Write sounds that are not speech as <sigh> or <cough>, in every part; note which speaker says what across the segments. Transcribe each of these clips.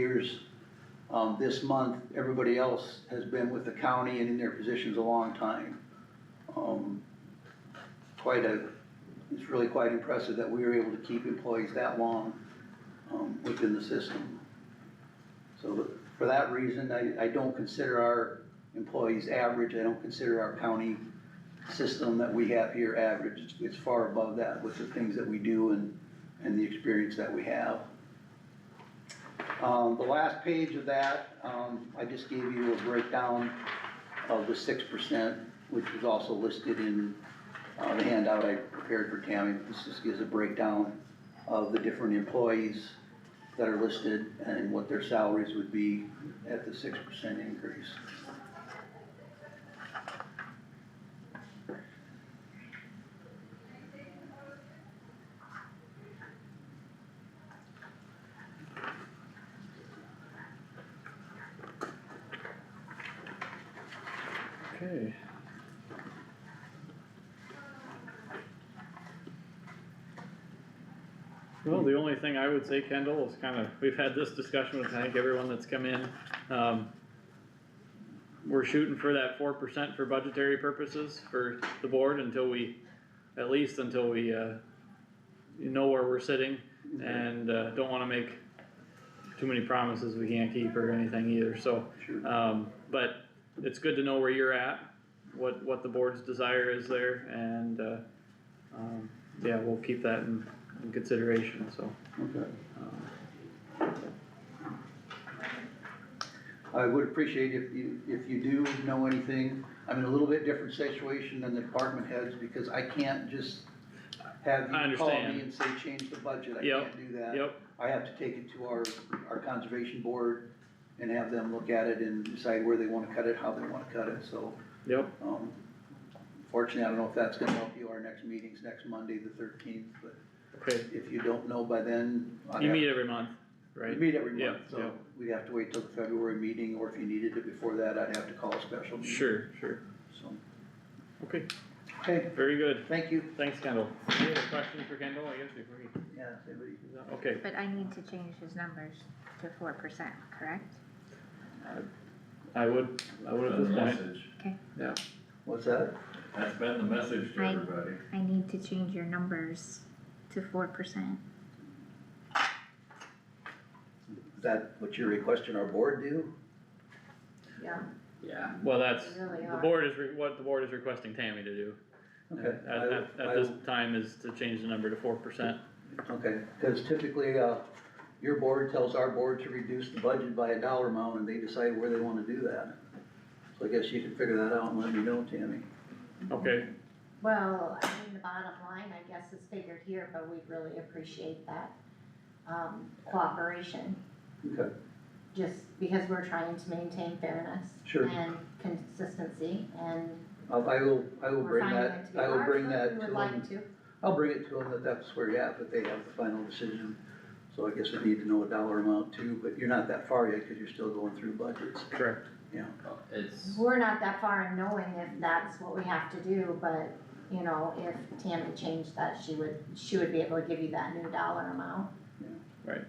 Speaker 1: years. Um, this month, everybody else has been with the county and in their positions a long time. Um, quite a, it's really quite impressive that we were able to keep employees that long, um, within the system. So for that reason, I, I don't consider our employees average, I don't consider our county system that we have here average. It's- It's far above that with the things that we do and, and the experience that we have. Um, the last page of that, um, I just gave you a breakdown of the six percent, which was also listed in, uh, the handout I prepared for Tammy. This just gives a breakdown of the different employees that are listed and what their salaries would be at the six percent increase.
Speaker 2: Okay. Well, the only thing I would say, Kendall, is kinda, we've had this discussion with, I think, everyone that's come in, um. We're shooting for that four percent for budgetary purposes for the board until we, at least until we, uh. You know where we're sitting and, uh, don't wanna make too many promises we can't keep or anything either, so.
Speaker 1: Sure.
Speaker 2: Um, but it's good to know where you're at, what, what the board's desire is there, and, uh, um, yeah, we'll keep that in, in consideration, so.
Speaker 1: Okay.
Speaker 2: um,
Speaker 1: I would appreciate if you, if you do know anything, I'm in a little bit different situation than the department heads, because I can't just have
Speaker 2: I
Speaker 1: you call
Speaker 2: understand.
Speaker 1: me and say, change the budget, I
Speaker 2: Yep,
Speaker 1: can't do that.
Speaker 2: Yep,
Speaker 1: I have to take it to our, our conservation board and have them look at it and decide where they wanna cut it, how they wanna cut it, so,
Speaker 2: yep,
Speaker 1: um, fortunately, I don't know if that's gonna help you, our next meeting's next Monday, the thirteenth, but
Speaker 2: okay.
Speaker 1: if you don't know by then. I'd
Speaker 2: You
Speaker 1: have-
Speaker 2: meet every month,
Speaker 1: We
Speaker 2: right?
Speaker 1: meet every
Speaker 2: Yeah,
Speaker 1: month,
Speaker 2: yeah.
Speaker 1: so we'd have to wait till the February meeting, or if you needed it before that, I'd have to call a special meeting.
Speaker 2: Sure, sure.
Speaker 1: So,
Speaker 2: Okay,
Speaker 1: Okay,
Speaker 2: very good.
Speaker 1: thank you.
Speaker 2: Thanks, Kendall. Any other questions for Kendall, I guess, before he,
Speaker 1: Yeah, if anybody-
Speaker 2: okay.
Speaker 3: But I need to change his numbers to four percent, correct?
Speaker 2: I would, I would at
Speaker 4: That's
Speaker 2: this
Speaker 4: the
Speaker 2: point,
Speaker 4: message,
Speaker 1: what's that?
Speaker 4: that's been the message to
Speaker 3: Right.
Speaker 4: everybody.
Speaker 3: I need to change your numbers to four percent.
Speaker 1: Is that what you're requesting our board do?
Speaker 5: Yeah,
Speaker 4: Yeah.
Speaker 2: well, that's,
Speaker 5: They really
Speaker 2: the
Speaker 5: are.
Speaker 2: board is, re- what the board is requesting Tammy to do.
Speaker 1: Okay.
Speaker 2: At,
Speaker 1: I-
Speaker 2: at,
Speaker 1: I-
Speaker 2: at this time is to change the number to four percent.
Speaker 1: Okay, cause typically, uh, your board tells our board to reduce the budget by a dollar amount, and they decide where they wanna do that. So I guess you can figure that out and let me know, Tammy.
Speaker 2: Okay,
Speaker 5: well, I mean, the bottom line, I guess, is figured here, but we really appreciate that, um, cooperation,
Speaker 1: Okay,
Speaker 5: just because we're trying to maintain fairness.
Speaker 1: Sure.
Speaker 5: And consistency, and
Speaker 1: I'll- I will, I will
Speaker 5: we're
Speaker 1: bring
Speaker 5: finding it
Speaker 1: that,
Speaker 5: to be
Speaker 1: I will
Speaker 5: hard,
Speaker 1: bring
Speaker 5: but
Speaker 1: that to
Speaker 5: we
Speaker 1: them.
Speaker 5: would like to.
Speaker 1: I'll bring it to them that that's where you're at, but they have the final decision. So I guess I need to know a dollar amount too, but you're not that far yet because you're still going through budgets.
Speaker 2: correct.
Speaker 4: It's,
Speaker 5: We're not that far in knowing if that's what we have to do, but, you know, if Tammy changed that, she would, she would be able to give you that new dollar amount.
Speaker 1: Okay.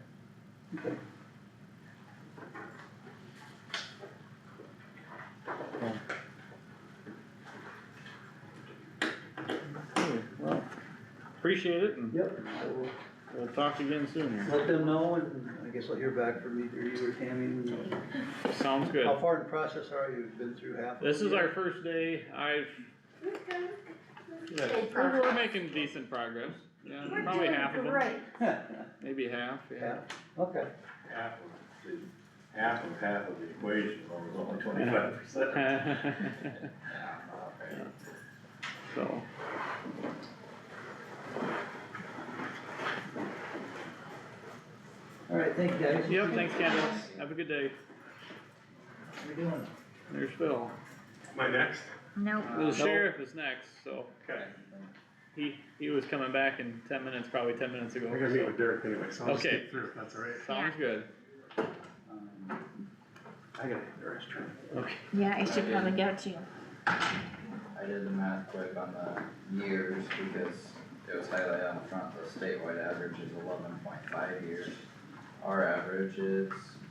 Speaker 2: Okay, Well, appreciate it and
Speaker 1: Yep. I will
Speaker 2: we'll talk again soon here.
Speaker 1: Let them know and I guess I'll hear back from either you or Tammy.
Speaker 2: Sounds good.
Speaker 1: How far in process are you? You've been through half? of
Speaker 2: This is
Speaker 1: it?
Speaker 2: our first day. I've, yeah,
Speaker 5: Good
Speaker 2: we're we're
Speaker 5: progress.
Speaker 2: making decent progress. Yeah, probably half of them,
Speaker 5: Right.
Speaker 2: maybe half, yeah.
Speaker 1: <laughs> Yeah, okay.
Speaker 4: half of, the- half of half of the equation, well, it's only twenty-five
Speaker 2: <laughs>
Speaker 4: percent.
Speaker 2: So.
Speaker 1: All right, thank you guys. How
Speaker 2: Yep, thanks Kendall. Have a good day.
Speaker 1: you doing?
Speaker 2: There's Phil.
Speaker 6: My next?
Speaker 3: Nope,
Speaker 2: The sheriff is next, so
Speaker 6: Okay.
Speaker 2: he, he was coming back in ten minutes, probably ten minutes ago.
Speaker 6: I gotta meet with Derek anyway, so I'll just
Speaker 2: Okay.
Speaker 6: skip through if that's all right.
Speaker 2: so- Sounds good.
Speaker 1: Um,
Speaker 6: I gotta hit Derek's turn.
Speaker 2: Okay.
Speaker 3: yeah, I should probably go too.
Speaker 7: I did the math quick on the years because it was highlighted on the front, the statewide average is eleven point five years. Our average is